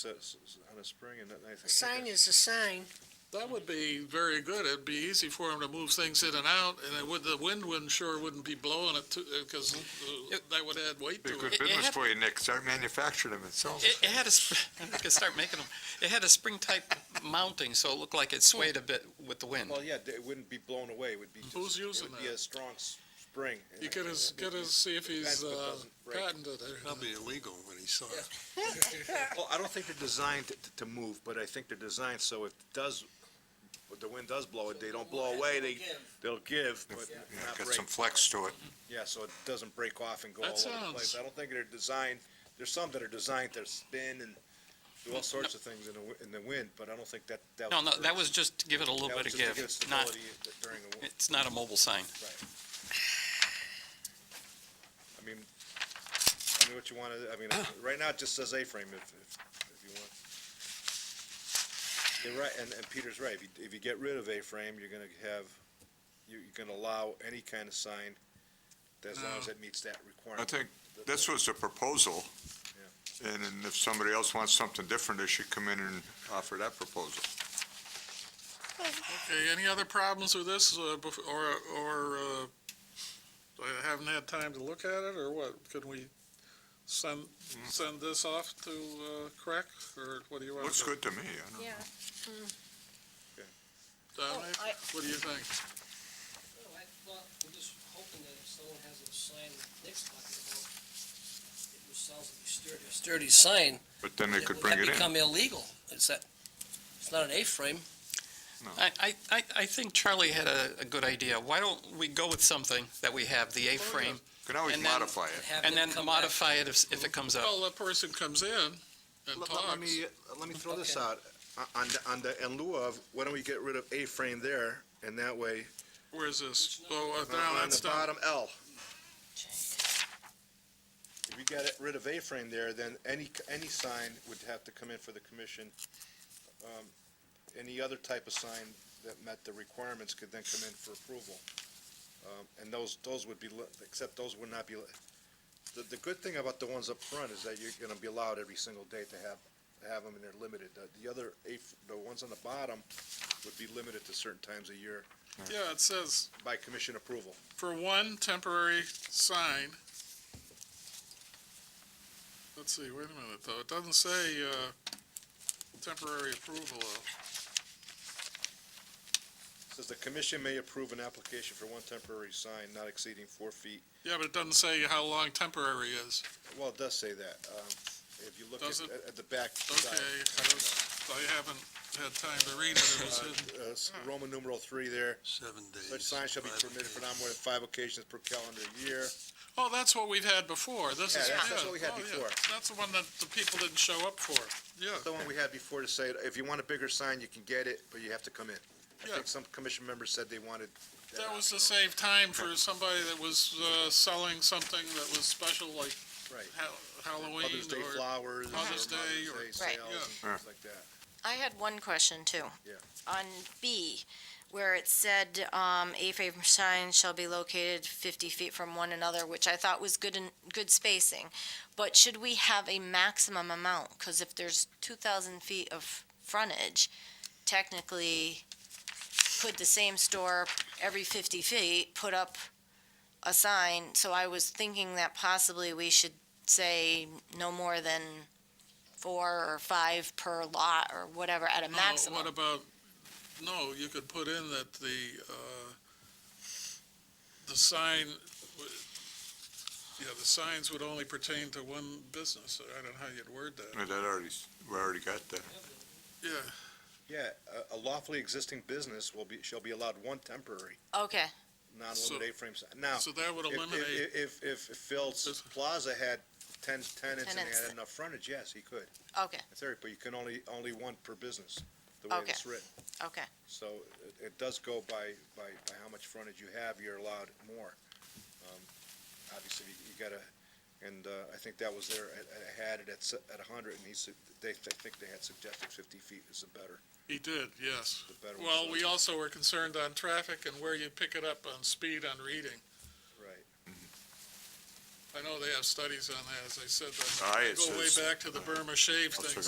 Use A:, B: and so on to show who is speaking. A: sets on a spring and nothing.
B: A sign is a sign.
C: That would be very good. It'd be easy for him to move things in and out, and it would, the wind wouldn't, sure wouldn't be blowing it too, because that would add weight
D: Be
C: to
D: a
C: it.
D: good
E: It- it
D: business
E: had-
D: for you, Nick. Start manufacturing them and selling them.
E: It, it had a, sp- I'm gonna start making them, it had a spring type mounting, so it looked like it swayed a bit with the wind.
A: Well, yeah, it wouldn't be blown away, it would be just.
C: Who's using
A: It would be
C: that?
A: a strong s- spring.
C: You could as, could as see if he's, uh, patented it.
F: Probably illegal when he saw it.
A: Well, I don't think they're designed to- to move, but I think they're designed so if it does, if the wind does blow it, they don't blow away, they, they'll give, but
D: Yeah,
A: not
D: Got
A: break.
D: some flex to it.
A: Yeah, so it doesn't break off and go all
C: That
A: over the place.
C: sounds-
A: I don't think they're designed, there's some that are designed to spin and do all sorts of things in the, wi- in the wind, but I don't think that, that.
E: No, no, that was just to give it a little
A: that
E: bit
A: was
E: of
A: just to give
E: give,
A: it
E: not,
A: stability during the, wi-
E: it's not a mobile sign.
A: I mean, I mean, what you want to, I mean, right now it just says A-frame if, if, if you want. You're right, and, and Peter's right, if you, if you get rid of A-frame, you're gonna have, you, you're gonna allow any kind of sign as long as it meets that
D: I
A: requirement.
D: think this was the proposal. And then if somebody else wants something different, they should come in and offer that proposal.
C: Okay, any other problems with this, uh, bef- or, or, uh, I haven't had time to look at it, or what? Could we send,
F: Mm-hmm.
C: send this off to, uh, Craig, or what do you want?
D: Looks
C: to-
D: good to me. I don't know.
C: Dominic,
B: Oh, I-
C: what do you think?
G: No, I thought, I'm just hoping that if someone has a sign like Nick's talking about, it was sells a sturdy, a sturdy sign.
D: But then they could bring it
G: That
D: in.
G: become illegal. It's that, it's not an A-frame.
E: I, I, I, I think Charlie had a, a good idea. Why don't we go with something that we have, the A-frame,
D: Can always
E: And then-
D: modify
G: and
D: it.
G: have
E: and
G: them
E: then
G: come back.
E: modify it if, if it comes up.
C: Well, the person comes in and
A: Let-
C: talks.
A: Let me, uh, let me throw this
G: Okay.
A: out, O- on, the- on the, in lieu of, why don't we get rid of A-frame there, and that way,
C: Where's this? Oh, uh, now
A: on
C: that's
A: the
C: done.
A: bottom L. If we got it- rid of A-frame there, then any, any sign would have to come in for the commission. Um, Any other type of sign that met the requirements could then come in for approval. Um, And those, those would be, li- except those would not be, li- the, the good thing about the ones up front is that you're gonna be allowed every single day to have, to have them and they're limited. The- The other, A- the ones on the bottom would be limited to certain times a year
C: Yeah, it says,
A: by commission approval.
C: for one temporary sign. Let's see, wait a minute, though, it doesn't say, uh, temporary approval of.
A: Says the commission may approve an application for one temporary sign not exceeding four feet.
C: Yeah, but it doesn't say how long temporary is.
A: Well, it does say that. Um, if you look
C: Does it?
A: at, at the back
C: Okay,
A: side.
C: I was- I haven't had time to read it, it was hidden.
A: Uh, s- Roman numeral three there,
F: Seven days.
A: such signs shall be
F: five
A: permitted for
F: days.
A: not more than five occasions per calendar year.
C: Oh, that's what we've had before, this
A: Yeah,
C: is.
A: that's- that's what we had
C: Oh, yeah.
A: before.
C: That's the one that the people didn't show up for, yeah.
A: The one we had before to say, if you want a bigger sign, you can get it, but you have to come in. I
C: Yeah.
A: think some commission members said they wanted.
C: That was to
A: option.
C: save time for somebody that was, uh, selling something that was special, like
A: Right.
C: Ha- Halloween
A: Mother's Day
C: or,
A: flowers. or
C: Mother's Day or-
A: Mother's Day
H: Right.
A: sales and
D: Yeah.
A: things like that.
H: I had one question too.
A: Yeah.
H: On B, where it said, um, A-frame signs shall be located fifty feet from one another, which I thought was good and, good spacing. But should we have a maximum amount? Cause if there's two thousand feet of frontage, technically, could the same store every fifty feet put up a sign? So I was thinking that possibly we should say no more than four or five per lot or whatever at a
C: No,
H: maximum.
C: What about, no, you could put in that the, uh, the sign, w- yeah, the signs would only pertain to one business. I don't know how you'd word that.
D: No, That already, we already got that.
C: Yeah,
A: Yeah, a- a lawfully existing business will be, shall be allowed one temporary,
H: Okay,
A: non-limited A-frame sign. Now,
C: so that would
A: If-
C: eliminate,
A: If, if, if if Phil's
C: This-
A: Plaza had ten tenants and they
H: Tenants.
A: had enough frontage, yes, he could.
H: okay,
A: That's right, but you can only, only one per business, the way
H: Okay.
A: it's written.
H: okay.
A: So it, it does go by, by, by how much frontage you have, you're allowed more. Um, Obviously, you- you gotta, and, uh, I think that was there, I, I had it at, s- at a hundred, and he said, they, I think they had suggested fifty feet is the better,
C: he did, yes.
A: the better. one.
C: Well, we also were concerned on traffic and where you pick it up on speed on reading.
A: Right.
C: I know they have studies on that, as I said, that
D: Aye, it
C: go way
D: says-
C: back to the Burma shave
D: I'll
C: thing.
D: check